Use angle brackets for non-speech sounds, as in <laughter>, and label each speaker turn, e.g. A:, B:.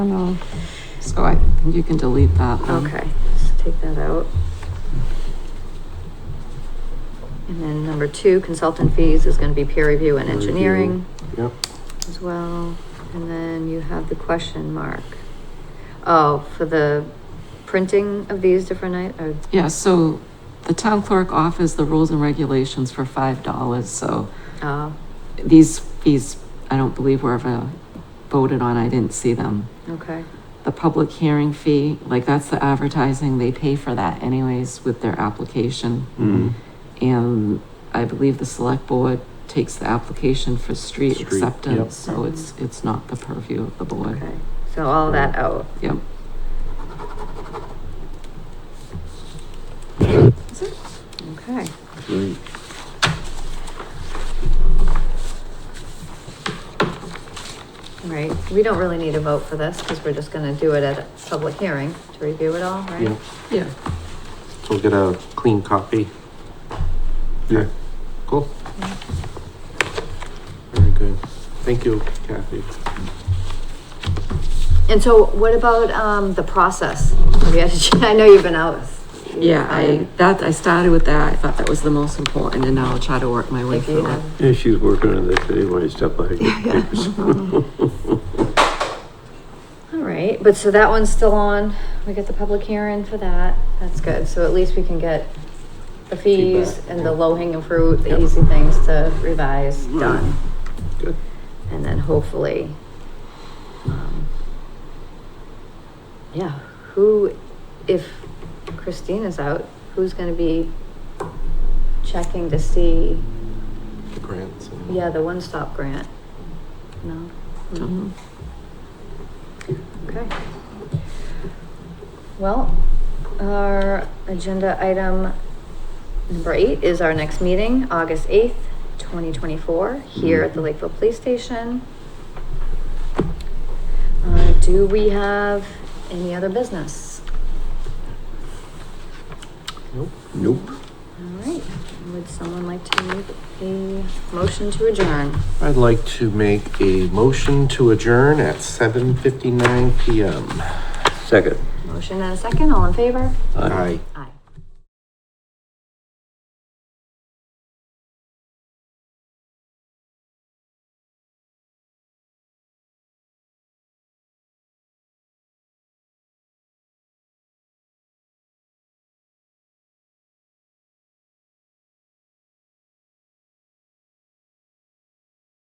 A: don't know.
B: Oh, So I, you can delete that.
C: Um,
B: then.
A: Okay, let's take that out. And then number two, consultant fees is gonna be peer review and
C: Peer review.
A: engineering
C: Yep,
A: as well. And then you have the question mark. Oh, for the printing of these different night, or,
B: Yeah, so the town clerk offers the rules and regulations for five dollars, so
A: oh,
B: these fees, I don't believe were ever voted on, I didn't see them.
A: okay,
B: The public hearing fee, like that's the advertising, they pay for that anyways with their application.
C: mm,
B: And I believe the select board takes the application for street
C: Street, yep.
B: acceptance, so it's, it's not the purview of the board.
A: okay. So all that out.
B: Yep.
A: Okay,
C: great.
A: All right. We don't really need a vote for this, because we're just gonna do it at a public hearing to review it all, right?
C: Yeah,
B: Yeah.
C: we'll get a clean copy. Yeah. Cool. Very good. Thank you, Kathy.
A: And so what about, um, the process? Have you had a- <laughs> I know you've been out.
B: Yeah, I, that, I started with that, I thought that was the most important, and now I'll try to work
C: Oh,
B: my way
A: If you
B: through
A: have,
B: it.
D: Yeah, she's working on that today when I step by.
A: all right, but so that one's still on. We get the public hearing for that. That's good. So at least we can get the fees
C: Feedback.
A: and the low hanging fruit, the
C: Yep.
A: easy things to revise done.
C: Good.
A: And then hopefully, um, yeah, who, if Christina's out, who's gonna be checking to see
C: The grants and.
A: Yeah, the one-stop grant. No?
B: Mhm.
A: Mm-hmm. Okay. Well, our agenda item number eight is our next meeting, August eighth, twenty twenty-four, here at the Lakeville Police Station. Uh, do we have any other business?
C: Nope.
D: Nope.
A: All right, would someone like to make a motion to adjourn?
C: I'd like to make a motion to adjourn at seven fifty-nine PM.
D: Second.
A: Motion and a second, all in favor?
D: Aye.
C: Aye.
A: Aye.